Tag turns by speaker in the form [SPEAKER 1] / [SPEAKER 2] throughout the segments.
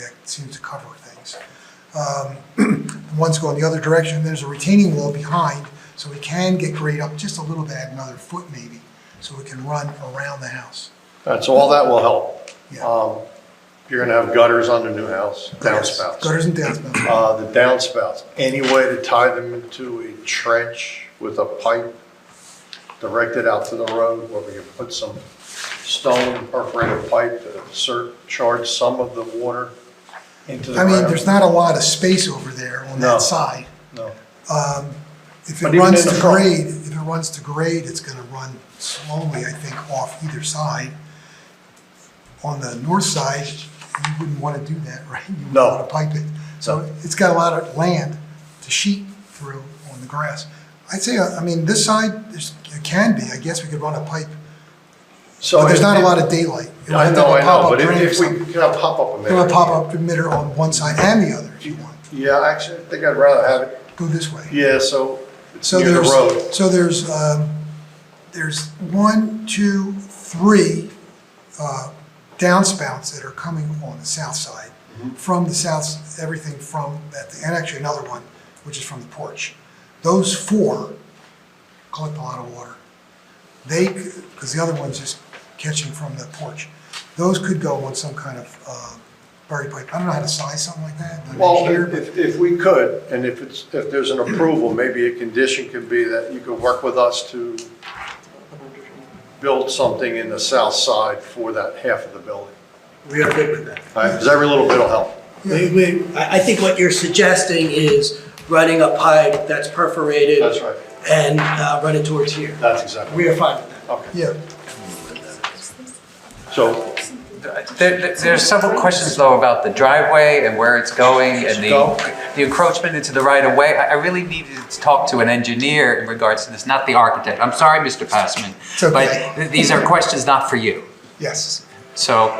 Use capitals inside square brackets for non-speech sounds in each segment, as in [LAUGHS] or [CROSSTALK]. [SPEAKER 1] that seems to cover things. Um, [CLEARS THROAT] One's going the other direction, there's a retaining wall behind, so we can get grade up just a little bit, another foot maybe, so we can run around the house.
[SPEAKER 2] All right, so all that will help.
[SPEAKER 1] Yeah.
[SPEAKER 2] Um, You're gonna have gutters on the new house,
[SPEAKER 1] Yes,
[SPEAKER 2] downspouts.
[SPEAKER 1] Gutters and
[SPEAKER 2] [COUGHS]
[SPEAKER 1] downspouts,
[SPEAKER 2] Uh, The downspouts, any way to tie them into a trench with a pipe directed out to the road where we can put some stone perforated pipe to surcharge some of the water into the
[SPEAKER 1] I
[SPEAKER 2] ground?
[SPEAKER 1] mean, there's not a lot of space over there on
[SPEAKER 2] No.
[SPEAKER 1] that side.
[SPEAKER 2] No.
[SPEAKER 1] If
[SPEAKER 2] But
[SPEAKER 1] it
[SPEAKER 2] even
[SPEAKER 1] runs
[SPEAKER 2] in
[SPEAKER 1] to
[SPEAKER 2] the front.
[SPEAKER 1] grade, if it runs to grade, it's gonna run slowly, I think, off either side. On the north side, you wouldn't wanna do that, [LAUGHS] right? You
[SPEAKER 2] No.
[SPEAKER 1] wouldn't wanna pipe it. So
[SPEAKER 2] No.
[SPEAKER 1] it's got a lot of land to sheet through on the grass. I'd say, uh, I mean, this side, there's, it can be, I guess we could run a pipe,
[SPEAKER 2] So
[SPEAKER 1] but there's
[SPEAKER 2] if-
[SPEAKER 1] not a lot of daylight. It would
[SPEAKER 2] I
[SPEAKER 1] have to
[SPEAKER 2] know,
[SPEAKER 1] have a
[SPEAKER 2] I know,
[SPEAKER 1] pop-up
[SPEAKER 2] but if-
[SPEAKER 1] drain or
[SPEAKER 2] if we
[SPEAKER 1] something.
[SPEAKER 2] could have pop-up
[SPEAKER 1] It would
[SPEAKER 2] emitter.
[SPEAKER 1] pop up emitter on one side and the other if you want,
[SPEAKER 2] Yeah, actually, I think I'd rather have it,
[SPEAKER 1] go this way.
[SPEAKER 2] yeah, so it's
[SPEAKER 1] So
[SPEAKER 2] near the
[SPEAKER 1] there's,
[SPEAKER 2] road.
[SPEAKER 1] so there's, um, there's one, two, three, uh, downspouts that are coming on the south side.
[SPEAKER 2] Mm-hmm.
[SPEAKER 1] From the south, everything from, that, and actually another one, which is from the porch. Those four collect a lot of water. They, because the other one's just catching from the porch. Those could go on some kind of, uh, buried pipe. I don't know how to size something like that. I'm not
[SPEAKER 2] Well,
[SPEAKER 1] sure,
[SPEAKER 2] if-
[SPEAKER 1] but-
[SPEAKER 2] if, if we could, and if it's, if there's an approval, maybe a condition could be that you could work with us to build something in the south side for that half of the building.
[SPEAKER 3] We are good with that.
[SPEAKER 2] All right, because every little bit will help.
[SPEAKER 3] We, we, I, I think what you're suggesting is running a pipe that's perforated.
[SPEAKER 2] That's right.
[SPEAKER 3] And, uh, run it towards here.
[SPEAKER 2] That's exactly,
[SPEAKER 3] We are fine with that.
[SPEAKER 2] okay.
[SPEAKER 1] Yeah.
[SPEAKER 2] So
[SPEAKER 4] There, there- there's several questions though about the driveway and where it's going and
[SPEAKER 2] Go.
[SPEAKER 4] the, the encroachment into the right of way. I, I really needed to talk to an engineer in regards to this, not the architect. I'm sorry, Mr. Passman.
[SPEAKER 1] It's okay.
[SPEAKER 4] But th- these are questions not for you.
[SPEAKER 1] Yes.
[SPEAKER 4] So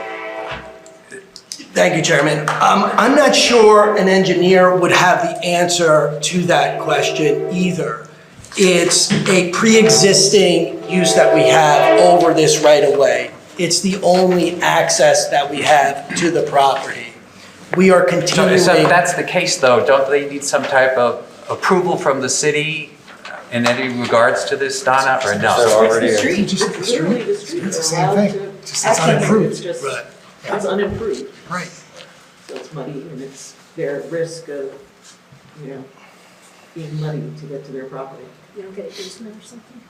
[SPEAKER 3] Thank you, Chairman. Um, I'm not sure an engineer would have the answer to that question either. It's a pre-existing use that we have over this right-of-way. It's the only access that we have to the property. We are
[SPEAKER 4] So
[SPEAKER 3] continuing.
[SPEAKER 4] so if that's the case, though, don't they need some type of approval from the city in any regards to this, Donna, or no?
[SPEAKER 5] It's the street.
[SPEAKER 1] Just the street.
[SPEAKER 5] Literally, the street.
[SPEAKER 1] It's the
[SPEAKER 5] They're
[SPEAKER 1] same
[SPEAKER 5] allowed
[SPEAKER 1] thing.
[SPEAKER 5] to-
[SPEAKER 1] Just it's
[SPEAKER 5] Actually,
[SPEAKER 1] unimproved.
[SPEAKER 5] It's just,
[SPEAKER 3] Right.
[SPEAKER 5] it's unimproved,
[SPEAKER 1] Right.
[SPEAKER 5] so it's muddy and it's their risk of, you know, being muddy to get to their property.
[SPEAKER 6] You don't get an easement or something?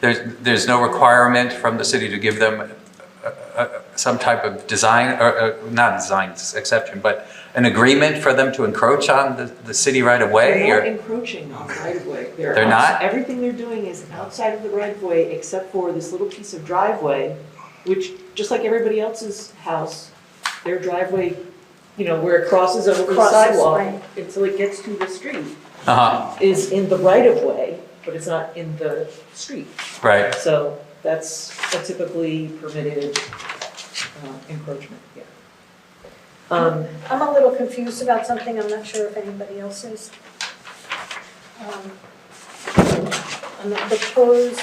[SPEAKER 4] There's, there's no requirement from the city to give them uh, uh, some type of design, or, uh, not design exception, but an agreement for them to encroach on the, the city right away?
[SPEAKER 5] They're not
[SPEAKER 4] or
[SPEAKER 5] encroaching on the right of way.
[SPEAKER 4] They're
[SPEAKER 5] outs-
[SPEAKER 4] not?
[SPEAKER 5] Everything they're doing is outside of the right of way except for this little piece of driveway, which, just like everybody else's house, their driveway, you know, where it crosses over the
[SPEAKER 6] Crosses,
[SPEAKER 5] sidewalk
[SPEAKER 6] right.
[SPEAKER 5] until it gets to the street,
[SPEAKER 4] Uh-huh,
[SPEAKER 5] is in the right of way, but it's not in the street.
[SPEAKER 4] right.
[SPEAKER 5] So that's a typically permitted uh, encroachment, yeah. Um,
[SPEAKER 6] I'm a little confused about something, I'm not sure if anybody else is. Um, On the proposed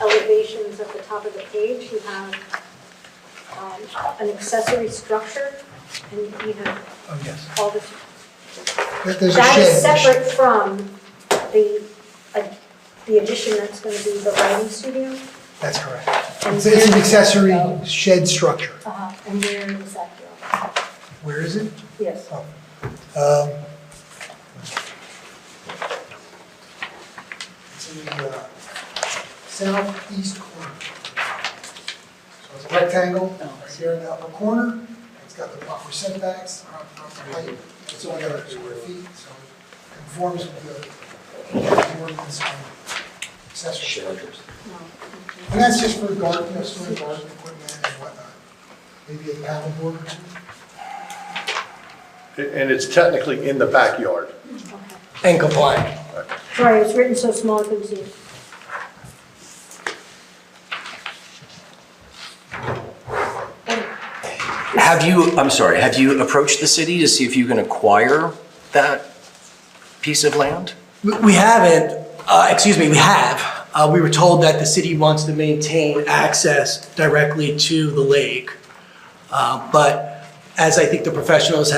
[SPEAKER 6] elevations at the top of the page, you have um, an accessory structure, and you have
[SPEAKER 1] Oh, yes.
[SPEAKER 6] all the,
[SPEAKER 1] There- There's a shed.
[SPEAKER 6] that is separate from the, uh, the addition that's going to be the writing studio.
[SPEAKER 1] That's correct. It's it's an accessory shed structure.
[SPEAKER 6] Uh, And where is that going?
[SPEAKER 1] Where is it?
[SPEAKER 6] Yes.
[SPEAKER 1] Oh. Um, It's in the uh, southeast corner. So it's a rectangle right here in the upper corner. It's got the proper setbacks, proper proper height. It's only got a square feet, so it conforms with the ordinance on accessory structures. And that's just for garden, you know, storing garden equipment and whatnot. Maybe a paddle board or two.
[SPEAKER 2] And it's technically in the backyard.
[SPEAKER 6] Okay.
[SPEAKER 3] And compliant.
[SPEAKER 6] Sorry, it's written so small I couldn't see it.
[SPEAKER 7] Have you, I'm sorry, have you approached the city to see if you can acquire that piece of land?
[SPEAKER 3] We we haven't, uh, excuse me, we have. Uh, We were told that the city wants to maintain access directly to the lake. Uh, But as I think the professionals